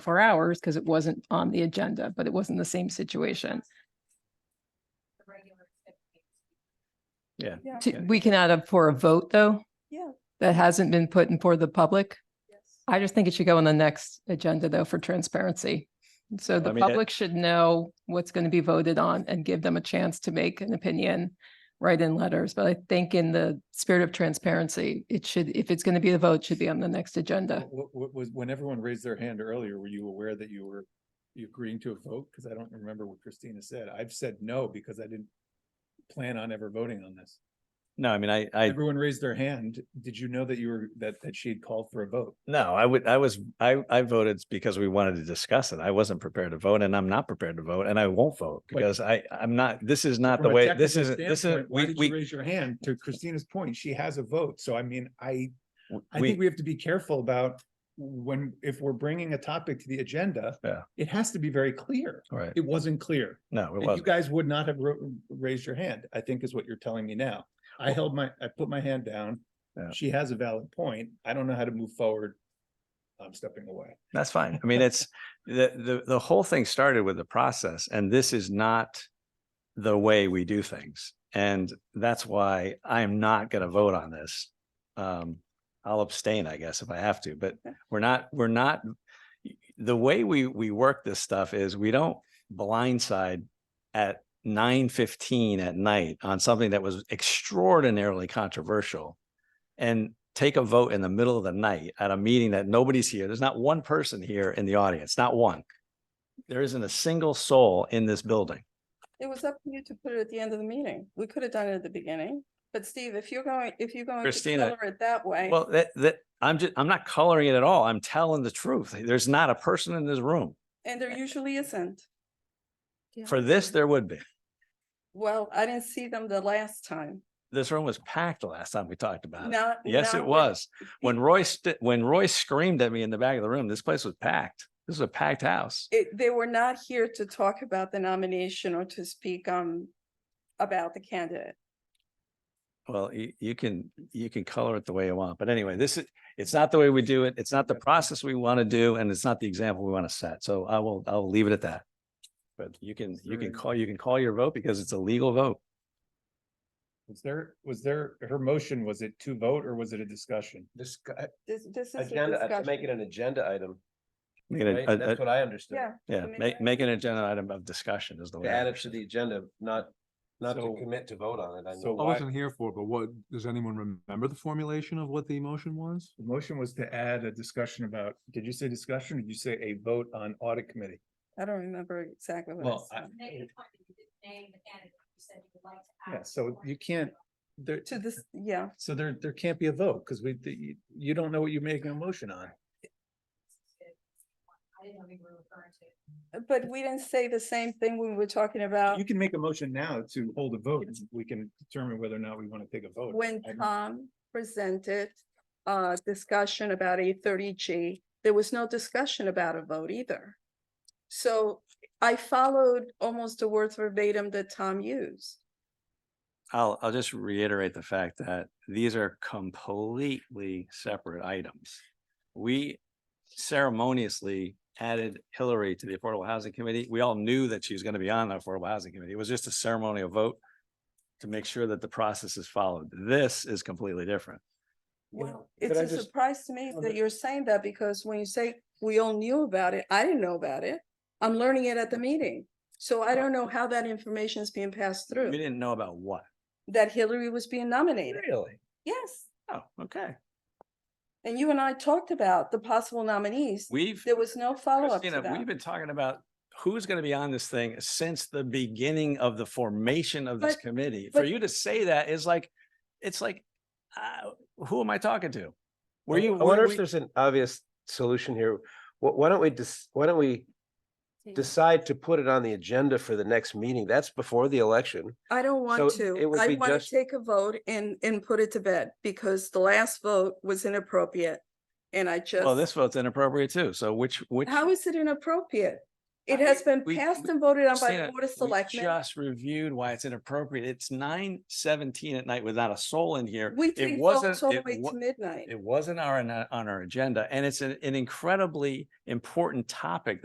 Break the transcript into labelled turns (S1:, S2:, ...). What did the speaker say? S1: four hours because it wasn't on the agenda, but it wasn't the same situation.
S2: Yeah.
S3: Yeah.
S1: To- We can add up for a vote, though.
S3: Yeah.
S1: That hasn't been put in for the public. I just think it should go on the next agenda, though, for transparency. So the
S2: I mean, that-
S1: public should know what's going to be voted on and give them a chance to make an opinion, write in letters. But I think in the spirit of transparency, it should, if it's going to be a vote, it should be on the next agenda.
S2: What, what was, when everyone raised their hand earlier, were you aware that you were you agreeing to a vote? Because I don't remember what Christina said. I've said no because I didn't plan on ever voting on this.
S4: No, I mean, I, I,
S2: Everyone raised their hand. Did you know that you were, that, that she had called for a vote?
S4: no, I would, I was, I, I voted because we wanted to discuss it. I wasn't prepared to vote and I'm not prepared to vote and I won't vote
S2: But-
S4: because I, I'm not, this is not the
S2: From a
S4: way, this
S2: technical
S4: isn't, this is,
S2: standpoint, Why
S4: we,
S2: did you
S4: we,
S2: raise your hand? To Christina's point, she has a vote. So I mean, I, I
S4: we,
S2: think we have to be careful about when, if we're bringing a topic to the agenda.
S4: Yeah.
S2: It has to be very clear.
S4: all right.
S2: It wasn't clear.
S4: No, it
S2: And You
S4: wasn't.
S2: guys would not have ro- raised your hand, I think is what you're telling me now. I held my, I put my hand down.
S4: Yeah.
S2: She has a valid point. I don't know how to move forward. I'm stepping away.
S4: That's fine. I mean, it's, the, the, the whole thing started with the process and this is not the way we do things. And that's why I'm not going to vote on this. Um, I'll abstain, I guess, if I have to, but
S3: Okay.
S4: we're not, we're not, the way we, we work this stuff is we don't blindside at nine fifteen at night on something that was extraordinarily controversial and take a vote in the middle of the night at a meeting that nobody's here. There's not one person here in the audience, not one. There isn't a single soul in this building.
S3: It was up to you to put it at the end of the meeting. We could have done it at the beginning, but Steve, if you're going, if you're going to
S4: Christina,
S3: Oh, color it that way.
S4: Well, that, that, I'm just, I'm not coloring it at all. I'm telling the truth. There's not a person in this room.
S3: And there usually isn't.
S4: For this, there would be.
S3: Well, I didn't see them the last time.
S4: This room was packed the last time we talked about it.
S3: Not.
S4: Uh, Yes, it
S3: not-
S4: was. When Roy, st- when Roy screamed at me in the back of the room, this place was packed. This was a packed house.
S3: It, they were not here to talk about the nomination or to speak, um, about the candidate.
S4: Well, you, you can, you can color it the way you want, but anyway, this is, it's not the way we do it. It's not the process we want to do and it's not the example we want to set. So I will, I'll leave it at that. But you can, you can
S2: Sure.
S4: call, you can call your vote because it's a legal vote.
S2: Was there, was there, her motion, was it to vote or was it a discussion?
S5: This
S3: This, this is. a
S5: agenda, uh, to make it
S3: discussion.
S5: an agenda item,
S4: I mean,
S5: right?
S4: a- a-
S5: That's what I understood.
S3: Yeah.
S4: yeah,
S3: mean,
S4: make, make an agenda item of discussion is the way.
S5: To
S4: I
S5: add it to
S4: understand
S5: the agenda, not, not to
S2: So-
S5: commit to vote on it. I
S2: So
S5: know.
S6: I
S2: why,
S6: wasn't here for, it, but what, does anyone remember the formulation of what the emotion was?
S2: the motion was to add a discussion about, did you say discussion? or Did you say a vote on audit committee?
S3: I don't remember exactly what I
S2: Well, I-
S3: said.
S7: Make the point that you didn't name the candidate, you said you would like to.
S2: Yeah,
S7: ask
S2: so
S7: for
S2: you
S7: it.
S2: can't, there,
S3: To this, yeah,
S2: so there, there can't be a vote because we, you, you don't know what you're making a motion on.
S7: I didn't know we were referring to.
S3: but we didn't say the same thing when we were talking about.
S2: You can make a motion now to hold a vote. and We can determine whether or not we want to take a vote.
S3: When
S2: I don't-
S3: Tom presented uh discussion about a thirty G, there was no discussion about a vote either. So I followed almost the words verbatim that Tom used.
S4: I'll, I'll just reiterate the fact that these are completely separate items. We ceremoniously added Hillary to the Affordable Housing Committee. We all knew that she was going to be on the Affordable Housing Committee. It was just a ceremonial vote to make sure that the process is followed. This is completely different.
S2: You know,
S3: Well,
S2: could
S3: it's
S2: I
S3: a
S2: just-
S3: surprise to me
S2: on
S3: that
S2: the-
S3: you're saying that because when you say we all knew about it, I didn't know about it. I'm learning it at the meeting. So I don't know how that information is being passed
S4: We
S3: through,
S4: didn't know about what.
S3: that Hillary was being nominated.
S4: Really?
S3: Yes,
S4: Oh, okay.
S3: and you and I talked about the possible nominees.
S4: We've.
S3: There was no follow-up to
S4: Christina,
S3: that.
S4: We've been talking about who's going to be on this thing since the beginning of the formation of this
S3: But-
S4: committee. For
S3: but-
S4: you to say that is like, it's like, uh, who am I talking to? Were
S5: I-
S4: you?
S5: I
S4: were
S5: wonder if
S4: we-
S5: there's an obvious solution here. Why, why don't we just, why don't we decide to put it on the agenda for the next meeting? That's before the election.
S3: I don't
S5: So
S3: want
S5: it
S3: to.
S5: would
S3: I
S5: be
S3: want to
S5: just-
S3: take a vote and, and put it to bed because the last vote was inappropriate. And I
S4: Well, this
S3: just,
S4: vote's inappropriate too. So which, which,
S3: how is it inappropriate? It has been
S4: We-
S3: passed
S4: we-
S3: and voted on by the
S4: Christina,
S3: Board of
S4: we
S3: Selectmen.
S4: Just reviewed why it's inappropriate. It's nine seventeen at night without a soul in here.
S3: We
S4: It
S3: take
S4: wasn't,
S3: votes all the
S4: it
S3: way
S4: wa-
S3: to midnight.
S4: it wasn't our, on our agenda and it's an an incredibly important topic